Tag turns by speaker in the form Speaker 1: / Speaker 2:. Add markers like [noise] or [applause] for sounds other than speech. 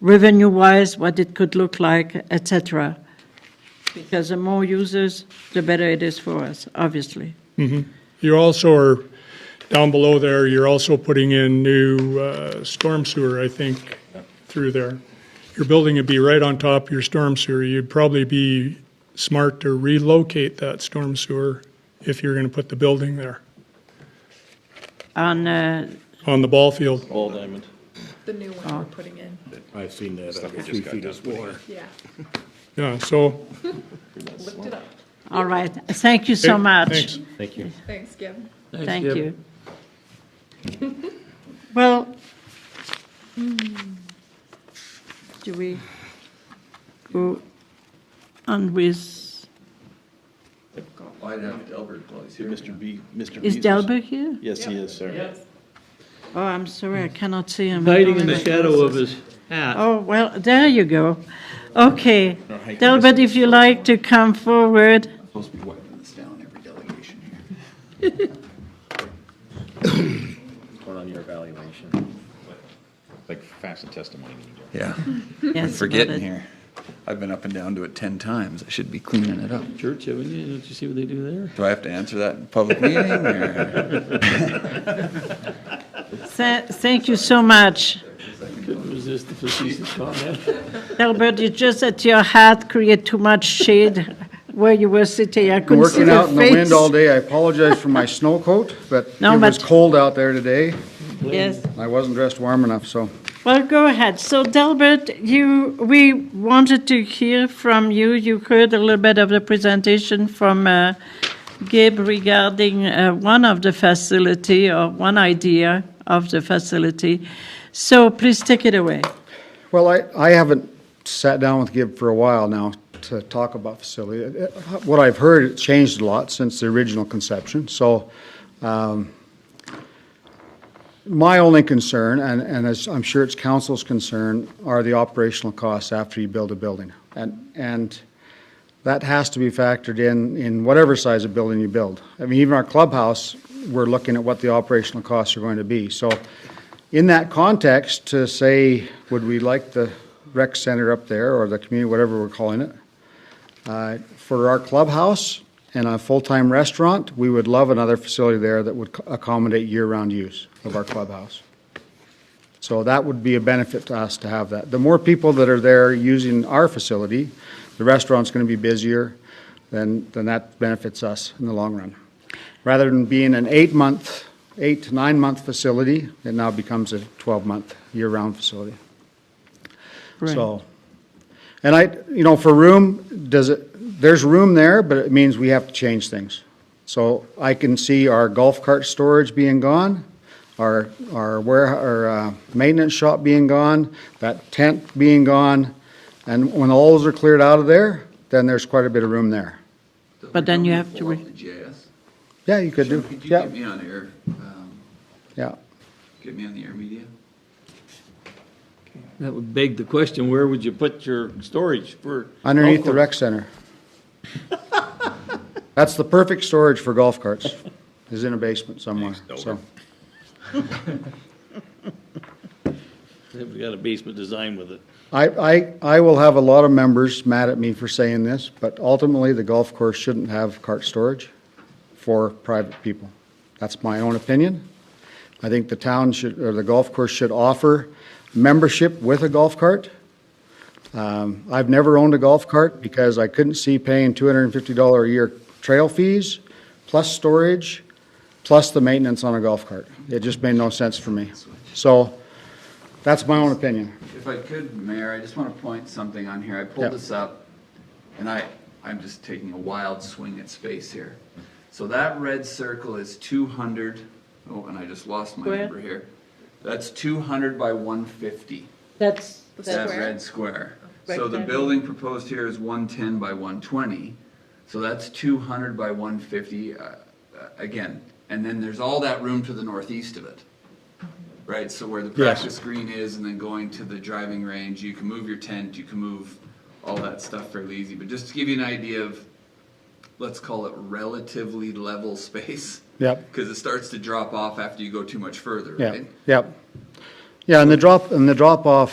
Speaker 1: revenue-wise, what it could look like, et cetera. Because the more users, the better it is for us, obviously.
Speaker 2: You also are, down below there, you're also putting in new uh, storm sewer, I think, through there. Your building would be right on top of your storm sewer. You'd probably be smart to relocate that storm sewer if you're going to put the building there,
Speaker 1: On, uh,
Speaker 2: on the ball field.
Speaker 3: All diamond.
Speaker 4: The new one we're putting in,
Speaker 5: I've seen that, under
Speaker 3: just
Speaker 5: three
Speaker 3: got
Speaker 5: feet
Speaker 3: done
Speaker 5: of water.
Speaker 4: yeah,
Speaker 2: Yeah, so,
Speaker 4: lift it up.
Speaker 1: all right, thank you so
Speaker 2: Okay,
Speaker 1: much.
Speaker 2: thanks.
Speaker 3: Thank you.
Speaker 4: Thanks, Gib.
Speaker 1: Thank you. Well, hmm, do we go on with,
Speaker 6: I'd have Delbert close here.
Speaker 3: Mr. B, Mr.
Speaker 1: is
Speaker 3: Beazers.
Speaker 1: Delbert here?
Speaker 3: Yes, he is, sir.
Speaker 1: Oh, I'm sorry, I cannot see him.
Speaker 7: Hmm. Hiding in the shadow of his hat.
Speaker 1: Oh, well, there you go. Okay. Delbert, if you like to come forward.
Speaker 6: Supposed to be wiping this down every delegation here.
Speaker 3: Going on your evaluation.
Speaker 8: like facts and testimony when you do it.
Speaker 6: Yeah,
Speaker 1: Hmm, Yes,
Speaker 6: forgetting
Speaker 1: but-
Speaker 6: here. I've been up and down to it 10 times. I should be cleaning it up.
Speaker 7: Church, haven't you? Don't you see what they do there?
Speaker 6: Do I have to answer that in public meeting or?
Speaker 1: Tha- Thank you so much.
Speaker 7: Couldn't resist the facetious comment.
Speaker 1: Delbert, it's just that your hat create too much shade [laughs] where you were sitting. I couldn't see
Speaker 9: Working
Speaker 1: your
Speaker 9: out in the
Speaker 1: face.
Speaker 9: wind all day. I apologize for my snow coat, but it
Speaker 1: No,
Speaker 9: was
Speaker 1: but-
Speaker 9: cold out there today.
Speaker 1: Yes.
Speaker 9: I wasn't dressed warm enough, so.
Speaker 1: Well, go ahead. So Delbert, you, we wanted to hear from you. You heard a little bit of the presentation from uh, Gabe regarding uh, one of the facility or one idea of the facility. So please take it away.
Speaker 9: Well, I, I haven't sat down with Gib for a while now to talk about facility. Uh, What I've heard, it's changed a lot since the original conception, so, um, my only concern, and, and as I'm sure it's council's concern, are the operational costs after you build a building. And, and that has to be factored in, in whatever size of building you build. I mean, even our clubhouse, we're looking at what the operational costs are going to be. So in that context, to say, would we like the rec center up there or the community, whatever we're calling it? uh, For our clubhouse and a full-time restaurant, we would love another facility there that would accommodate year-round use of our clubhouse. So that would be a benefit to us to have that. The more people that are there using our facility, the restaurant's going to be busier, then, then that benefits us in the long run. Rather than being an eight-month, eight to nine-month facility, it now becomes a 12-month, year-round facility. So, and I, you know, for room, does it, there's room there, but it means we have to change things. So I can see our golf cart storage being gone, our, our ware, our, uh, maintenance shop being gone, that tent being gone. And when all those are cleared out of there, then there's quite a bit of room there.
Speaker 1: But then you have to
Speaker 6: Pull
Speaker 1: re-
Speaker 6: up the JS.
Speaker 9: Yeah, you could
Speaker 6: Jim,
Speaker 9: do,
Speaker 6: Could you
Speaker 9: yeah,
Speaker 6: get me on air, um,
Speaker 9: yeah.
Speaker 6: get me on the air media?
Speaker 7: That would beg the question, where would you put your storage for?
Speaker 9: Underneath the
Speaker 6: [laughs]
Speaker 9: rec center. That's the perfect storage for golf carts, is in a basement somewhere, so.
Speaker 7: They've got a basement design with it.
Speaker 9: I, I, I will have a lot of members mad at me for saying this, but ultimately, the golf course shouldn't have cart storage for private people. That's my own opinion. I think the town should, or the golf course should offer membership with a golf cart. Um, I've never owned a golf cart because I couldn't see paying two hundred and fifty dollar a year trail fees, plus storage, plus the maintenance on a golf cart. It just made no sense for me. So, that's my own opinion.
Speaker 6: If I could, Mayor, I just want to point something on here. I
Speaker 9: Yeah.
Speaker 6: pulled this up, and I, I'm just taking a wild swing at space here. So that red circle is 200, oh, and I just lost my
Speaker 1: Square.
Speaker 6: number here. That's 200 by 150,
Speaker 1: That's,
Speaker 6: that
Speaker 4: Square.
Speaker 6: red square. So the
Speaker 1: Rectangle.
Speaker 6: building proposed here is 110 by 120, so that's 200 by 150, uh, uh, again. And then there's all that room to the northeast of it. Right, so where the practice green is and then going to the driving range, you can move your tent, you can move all that stuff fairly easy. But just to give you an idea of, let's call it relatively level [laughs] space.
Speaker 9: Yep.
Speaker 6: Because it starts to drop off after you go too much further,
Speaker 9: Yeah,
Speaker 6: right?
Speaker 9: yeah. Yeah, and the drop, and the drop-off